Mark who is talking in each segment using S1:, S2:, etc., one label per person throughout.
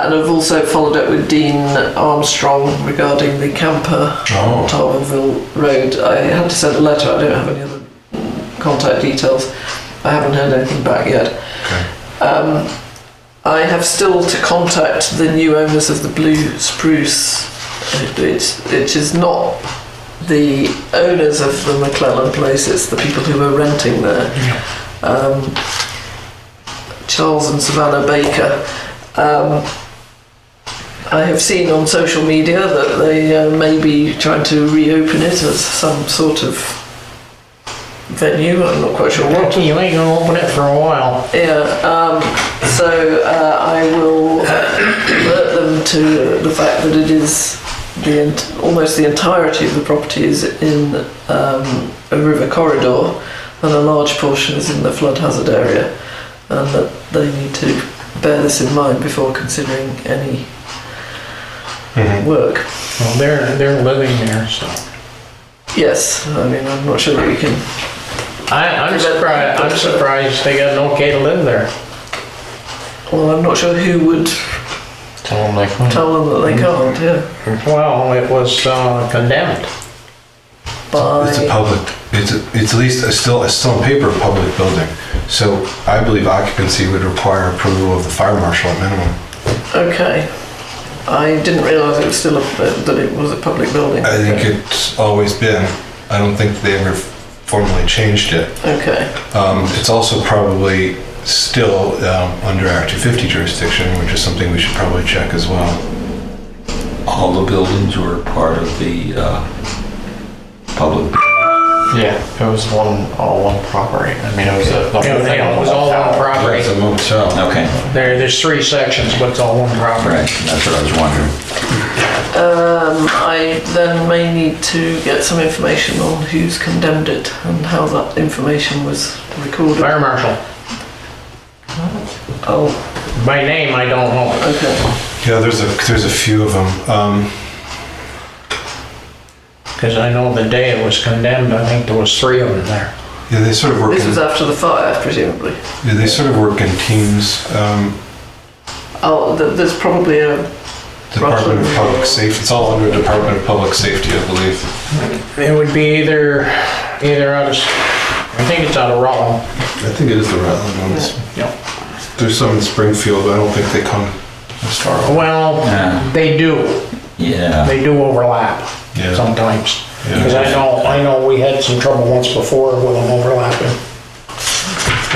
S1: And I've also followed up with Dean Armstrong regarding the camper on
S2: Oh,
S1: Tarverville Road. I had to send a letter, I don't have any other contact details. I haven't heard anything back yet.
S2: okay.
S1: Um, I have still to contact the new owners of the Blue Spruce. It, it is not the owners of the McClellan place, it's the people who were renting there. Um, Charles and Savannah Baker. Um, I have seen on social media that they uh, may be trying to reopen it as some sort of venue, I'm not quite sure what.
S3: Lucky you ain't gonna open it for a while.
S1: Yeah, um, so uh, I will alert them to the fact that it is the ent- almost the entirety of the property is in um, a river corridor, and a large portion is in the flood hazard area, and that they need to bear this in mind before considering any
S2: Mhm.
S1: work.
S3: Well, they're, they're living there, so.
S1: Yes, I mean I'm not sure that we can.
S3: I, I'm surprised, I'm surprised they got an okay to live there.
S1: Well, I'm not sure who would
S4: Tell them like, hmm,
S1: tell them that they can't. Yeah,
S3: Well, it was uh, condemned.
S1: by
S2: It's a public, it's, a- it's at least, it's still, it's still on paper, a public building. So I believe occupancy would require approval of the fire marshal at minimum.
S1: Okay. I didn't realise it was still a, uh, that it was a public building.
S2: I think it's always been, I don't think they ever formally changed it.
S1: Okay.
S2: Um, It's also probably still um, under our 250 jurisdiction, which is something we should probably check as well.
S4: all the buildings were part of the uh, public.
S5: Yeah, it was one, all one property. I mean, it was a. the whole
S3: You know,
S5: thing
S3: It was all one property.
S2: It's a motel.
S4: Okay,
S3: There, there's three sections, but it's all one
S4: all
S3: property.
S4: right, that's what I was wondering.
S1: Um, I then may need to get some information on who's condemned it and how that information was recorded.
S3: Fire marshal.
S1: Oh,
S3: By name, I don't know.
S1: okay.
S2: Yeah, there's a, there's a few of them. Um,
S3: Because I know the day it was condemned, I think there was three of them there.
S2: Yeah, they sort of work,
S1: This was
S2: in-
S1: after the fire, presumably.
S2: yeah, they sort of work in teams. Um,
S1: Oh, th- there's probably a.
S2: Department of
S1: Roughly.
S2: Public Safety, it's all under Department of Public Safety, I believe.
S3: It would be either, either out of, I think it's out of Rutland.
S2: I think it is the Rutland ones.
S3: Yeah.
S2: There's some in Springfield, but I don't think they come as far. over.
S4: Yeah.
S3: Well, they do,
S4: Yeah,
S3: they do overlap
S2: Yeah.
S3: sometimes.
S2: Yeah.
S3: Because I know, I know we had some trouble once before with them overlapping.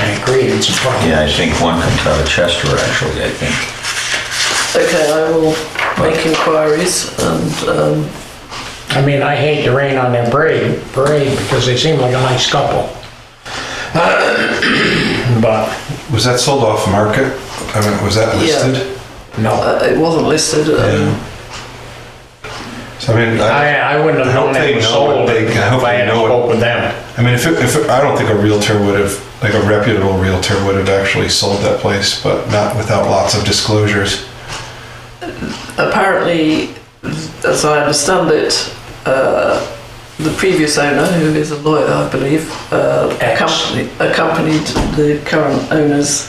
S3: And it created some problems.
S4: yeah, I think one comes out of Chester, actually, I think.
S1: Okay, I will make inquiries and. Um,
S3: I mean, I hate to rain on their parade, parade because they seem like a nice couple. But,
S2: Was that sold off market? I mean, was that
S1: Yeah.
S2: listed?
S3: no,
S1: uh, it wasn't listed. Um,
S2: So I mean, I,
S3: I, I wouldn't
S2: I
S3: have
S2: hope
S3: known it
S2: they
S3: was
S2: know what
S3: sold
S2: they- I
S3: if
S2: hope
S3: I
S2: they
S3: hadn't
S2: know what-
S3: spoke with them.
S2: I mean, if, it, if it, I don't think a realtor would have, like a reputable realtor would have actually sold that place, but not without lots of disclosures.
S1: apparently, as I understand it, uh, the previous owner, who is a lawyer, I believe, uh,
S3: Ex.
S1: accompanied, accompanied the current owners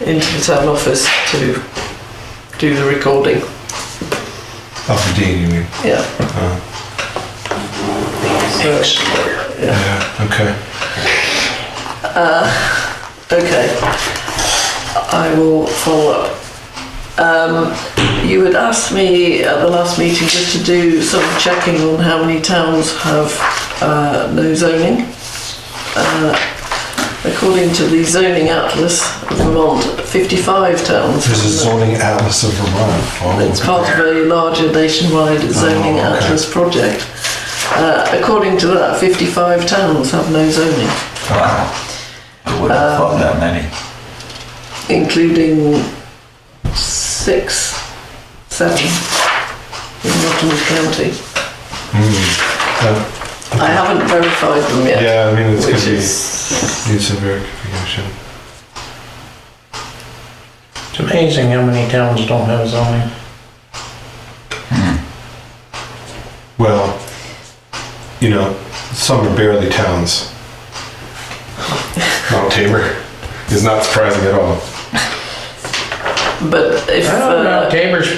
S1: into the town office to do the recording.
S2: Off the dean, you mean?
S1: Yeah.
S2: Oh.
S1: So,
S2: Yeah. Okay.
S1: okay. I will follow up. Um, you had asked me at the last meeting just to do some checking on how many towns have uh, no zoning. Uh, according to the zoning atlas of Vermont, 55 towns.
S2: There's a
S1: have no-
S2: zoning atlas of Vermont.
S1: It's part of a larger nationwide zoning
S2: Oh, okay.
S1: atlas project. Uh, according to that, 55 towns have no zoning,
S4: Wow. I would have thought that many.
S1: including six, seven in Nottingham County.
S2: Mm.
S1: I haven't verified them
S2: Yeah,
S1: yet,
S2: yeah, I mean, it's
S1: which
S2: gonna be.
S1: is
S2: Needs some verification.
S3: It's amazing how many towns don't have zoning.
S2: Well, you know, some are barely towns. Mount Tabor is not surprising at all.
S6: but if.
S1: I don't
S6: uh,
S1: know, Tabor's